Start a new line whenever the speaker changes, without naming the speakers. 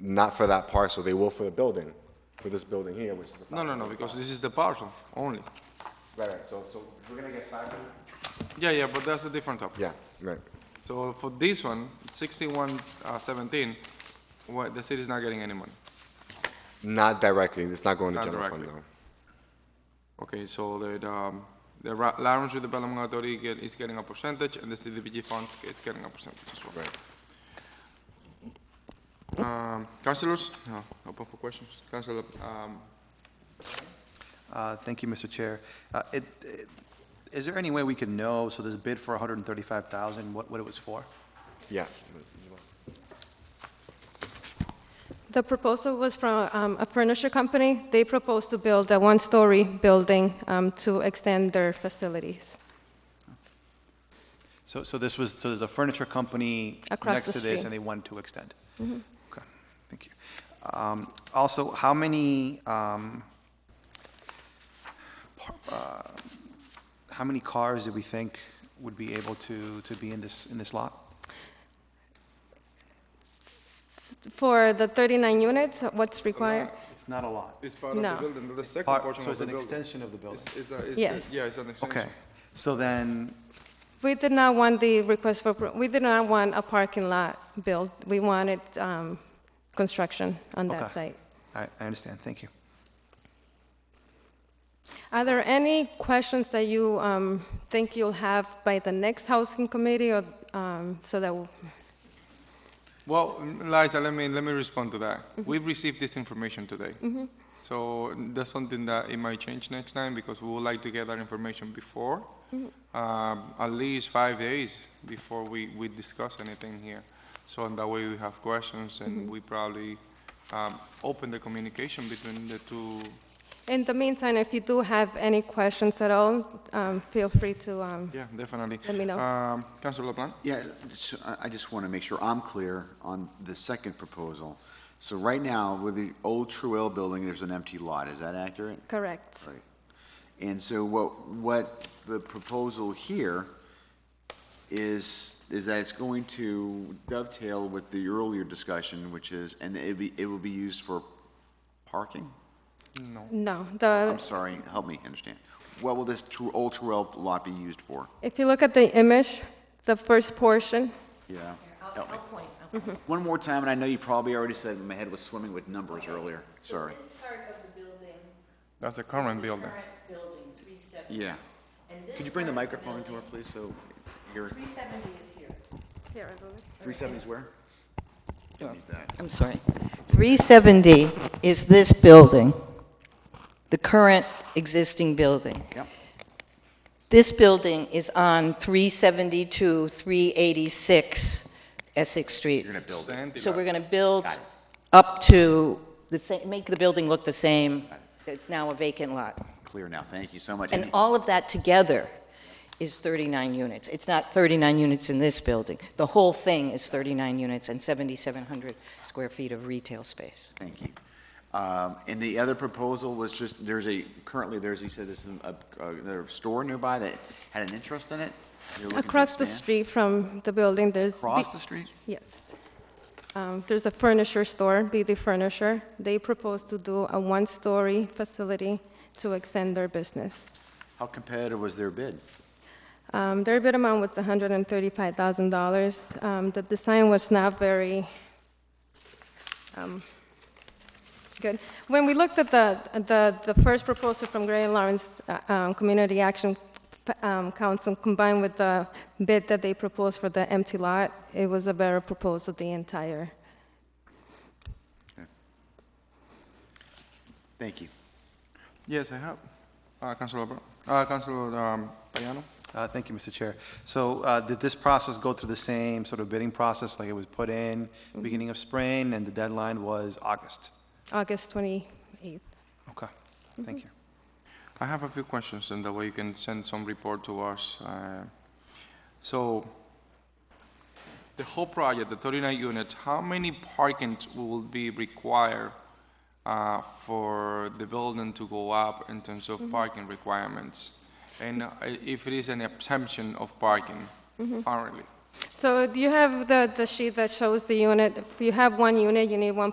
Not for that parcel, they will for the building, for this building here, which is the.
No, no, no, because this is the parcel only.
Right, right, so, so we're gonna get five hundred?
Yeah, yeah, but that's a different topic.
Yeah, right.
So for this one, sixty-one, uh, seventeen, what, the city's not getting any money.
Not directly, it's not going to
Not
general fund
directly.
though.
Okay, so the, um, the Ra- Lawrence Redevelopment Authority get, is getting a percentage, and the CDBG funds, it's getting a percentage as well.
Right.
Um, councilors, no, open for questions. Councilor, um,
Uh, Thank you, Mr. Chair. Uh, it- it- Is there any way we can know, so this bid for 135,000, what what it was for?
Yeah.
The proposal was from um, a furniture company. They proposed to build a one-story building um, to extend their facilities.
So so this was, so there's a furniture company
Across
next to
the
this,
street. Mm-hmm.
and they wanted to extend? Okay, thank you. Um, Also, how many, um, par- uh, how many cars do we think would be able to to be in this, in this lot?
For the 39 units, what's required?
It's not a lot.
it's part of the
No.
building, the second
Part-
portion
So
of
it's
the
an
building.
extension of the building?
It's- it's a- it's a-
Yes.
Yeah, it's an extension.
Okay, so then,
We did not want the request for, pro- we did not want a parking lot built. We wanted um, construction on that
Okay.
site.
I I understand, thank you.
Are there any questions that you um, think you'll have by the next housing committee or um, so that, w-
Well, Liza, let me, let me respond to that.
Mm-hmm.
We've received this information today. So that's something that it might change next time because we would like to get that information before,
Mm-hmm.
um, at least five days before we, we discuss anything here. So in that way we have questions
Mm-hmm.
and we probably um, open the communication between the two.
in the meantime, if you do have any questions at all, um, feel free to um,
Yeah, definitely.
Let me know.
Um, Councilor LaPlante?
Yeah, so I- I just want to make sure I'm clear on the second proposal. So right now, with the old Truel building, there's an empty lot, is that accurate?
Correct.
Right. And so what, what the proposal here is, is that it's going to dovetail with the earlier discussion, which is, and it be, it will be used for parking?
No,
I'm
the,
sorry, help me understand. What will this Tru- old Truel lot be used for?
if you look at the image, the first portion,
Yeah.
I'll,
help me.
I'll point. I'll
Mm-hmm.
point.
One more time, and I know you probably already said, my head was swimming with numbers earlier, sorry.
So this part of the building.
That's the
this is
current
the
building.
Current building, three seventy.
Yeah.
And this
Could you bring the
part of
microphone to her, please,
building-
so your,
Three seventy is here.
here, I believe.
370 is where? Need that.
I'm sorry. Three seventy is this building, the current existing building.
Yep.
This building is on three seventy-two, three eighty-six Essex Street.
You're gonna build it.
Stand
So
it.
we're going to build up to the same, make the building look the same. It's now a vacant lot.
Clear now, thank you so much.
And
And
all of that together is 39 units. It's not 39 units in this building. The whole thing is 39 units and 7,700 square feet of retail space.
Thank you. Um, And the other proposal was just, there's a, currently, there's, you said there's an- a, a there's a store nearby that had an interest in it? You're looking to
Across the
expand?
street from the building, there's. B-
Across the street?
Yes. Um, There's a furniture store, BD Furniture. They propose to do a one-story facility to extend their business.
How competitive was their bid?
Um, Their bid amount was $135,000. Um, The design was not very um, good. When we looked at the, the the first proposal from Gray and Lawrence uh, um, Community Action um, Council combined with the bid that they proposed for the empty lot, it was a better proposal, the entire.
Thank you.
Yes, I have. Uh, Councilor, Bro- uh, Councilor, um, Payano?
Uh, Thank you, Mr. Chair. So uh, did this process go through the same sort of bidding process, like it was put in beginning of spring, and the deadline was August?
August 28th.
Okay, thank you.
I have a few questions, and that way you can send some report to us. uh, So, the whole project, the 39 units, how many parkings will be required uh, for the building to go up in terms of parking requirements? And uh, if it is an exemption of parking currently?
So do you have the the sheet that shows the unit? If you have one unit, you need one